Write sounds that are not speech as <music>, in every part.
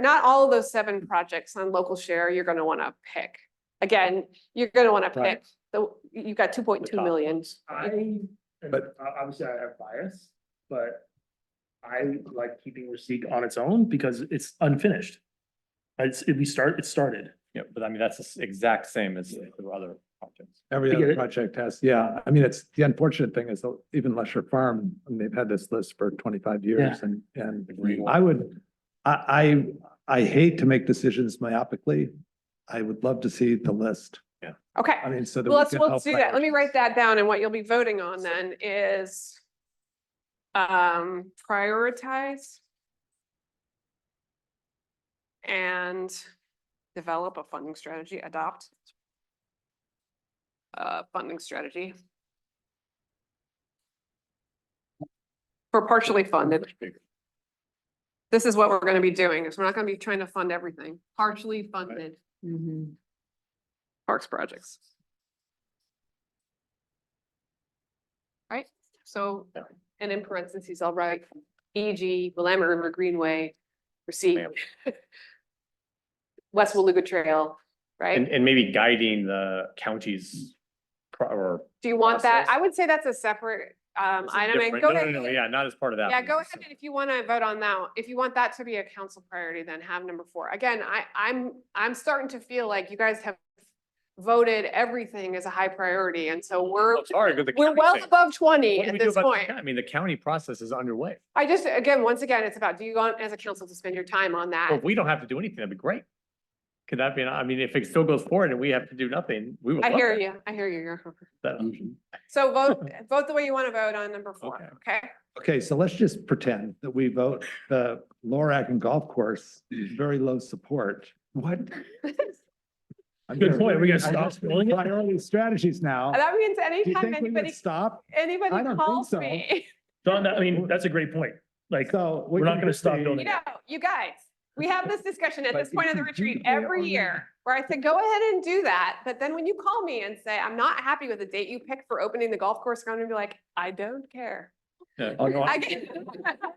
Not all of those seven projects on local share you're gonna wanna pick. Again, you're gonna wanna Right. pick, the you've got two point two top million. I, and But- o- obviously I have bias, but I like keeping receipt on its own because it's unfinished. It's, if we start, it started. Yeah, but I mean, that's the s- exact same as the other projects. Every I get other it. project has, yeah, I mean, it's, the unfortunate thing is uh, even Lesher Farm, and they've had this list for twenty-five years and, and I would, I, I, I hate to make decisions myopically. I would love to see the list. Okay, I mean, so that. well, we let's, can let's help do that. Let me write prioritize. that down and what you'll be voting on then is um, prioritize and develop a funding strategy, adopt a funding strategy for partially funded. This is what we're gonna be doing, is we're not gonna be trying to fund everything, partially funded parks projects. Right, so, and in parentheses, I'll write E.g. Willamette River Greenway, receipt. <laughs> West Waluga Trail, And, right? and maybe guiding the counties pro- or. Do you want that? process. I would say that's a separate, um, This is item, and different. go No, no, ahead. no, Yeah, not as part of that. Yeah, one. go ahead, So- and if you want to vote on that, if you want that to be a council priority, then have number four. Again, I, I'm, I'm starting to feel like you guys have voted everything as a high priority, and so we're, Well, Oh, Sorry, but the. we're county well thing. above twenty What do at we do this about the point. county? I mean, the county process is underway. I just, again, once again, it's about, do you want as a council to spend your time on Well, that? If we don't have to do anything, that'd be great. Could that be, an- I mean, if it still goes forward and we have to do nothing, we would. I love hear that. you, I hear you. you're- That- So <laughs> vote, vote the way you want to vote on number four, okay? <laughs> Okay, so let's just pretend that we vote the Lorac and Golf Course, very low support. What? I'm Good just- point. We gotta I'm stop just- spelling it? Priority strategies now. And That means Do you anytime think we would anybody, stop? I don't anybody think calls so. me, Don, I mean, that's a great point. Like, So. we're not gonna stop building you it. know, you guys, we have this discussion at But this point of if the you retreat do the way every on- year, where I said, go ahead and do that, but then when you call me and say, I'm not happy with the date you picked for opening the golf course, I'm gonna be like, I don't care. Yeah. Oh, no, I I- get-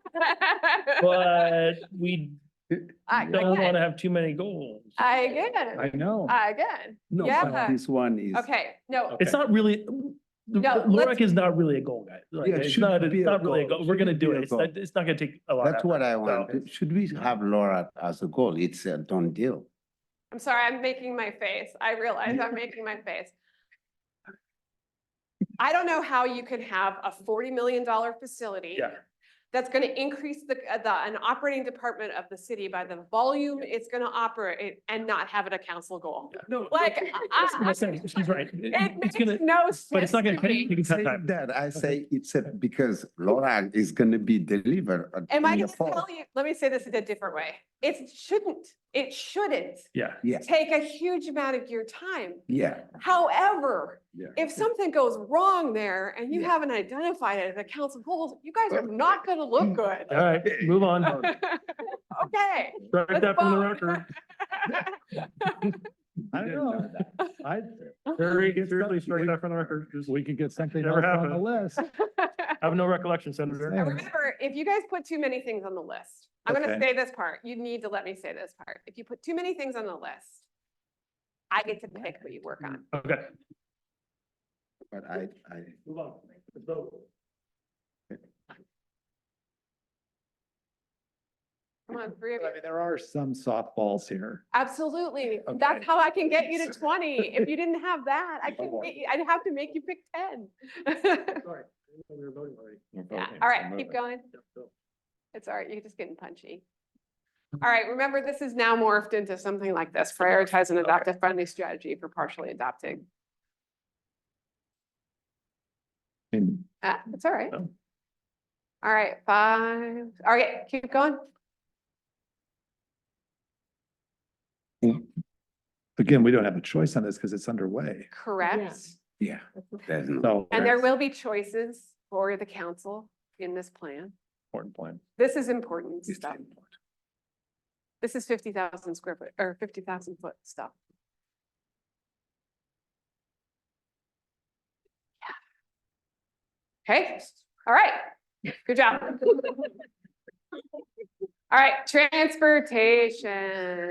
<laughs> but we I- don't Again, wanna have too many goals. I again. I know. Again, No, Uh, yeah. but this one is. okay, no, It's not really, the No, let's- LoRac is not really a goal, guys. Like, Yeah, it it's shouldn't not, it's be a not really a goal. goal. We're gonna Shouldn't do be a it. It's not, goal. it's not gonna take a lot. of That's effort. what I So- want. Should we have Laura as a goal? It's a done deal. I'm sorry, I'm making my face. I realize I'm making my face. I don't know how you can have a forty million dollar facility. Yeah. That's gonna increase the, uh, the, an operating department of the city by the volume it's gonna operate and not have it a council goal. No. Like, I- That's what I'm saying. She's right. It- It It's gonna, makes no sense. but it's not gonna, to me. you can cut Saying time. That I say it's a, because Laura is gonna be delivered. at- Am I in gonna the fall. tell you, let me say this in a different way. It shouldn't, it shouldn't Yeah. Yeah, take a huge amount of your time. yeah, However, yeah. if Hmm. something goes wrong there and you Yeah. haven't identified it as a council goals, you guys are not gonna look mm. good. All right, move on. <laughs> Okay. Strike Let's that from the vote. record. I don't know. I, <laughs> Very It's seriously, not- strike that from the record. Just- we could get something Never else on <laughs> the list. I have no recollection, Senator. Yeah. Remember, if you guys put too many things on the list, I'm gonna Okay. say this part, you need to let me say this part. If you put too many things on the list, I get to pick what you work on. Okay. But I, I, Move on. Let's vote. Come on, three of I you. mean, there are some softballs here. Absolutely. Okay. That's how I can get you <laughs> to twenty. If you didn't have that, I couldn't Lord. get you, I'd have to make you pick ten. <laughs> Sorry, we were voting already. We're Yeah, voting, all so right, keep moving. going. Yep, so- It's all right, you're just getting punchy. All right, remember, this is now morphed into something like this, prioritize and adopt a friendly strategy for partially adopting. And Uh, it's all right. Oh. All right, five, all right, keep going. again, we don't have a choice on this because it's underway. Correct. yeah, there's no. So And there will be choices for the council in this plan. Important point. This is important it's stuff. important. This is fifty thousand square foot or fifty thousand foot stuff. Yeah. Okay, <laughs> all right, good job. All right, transportation.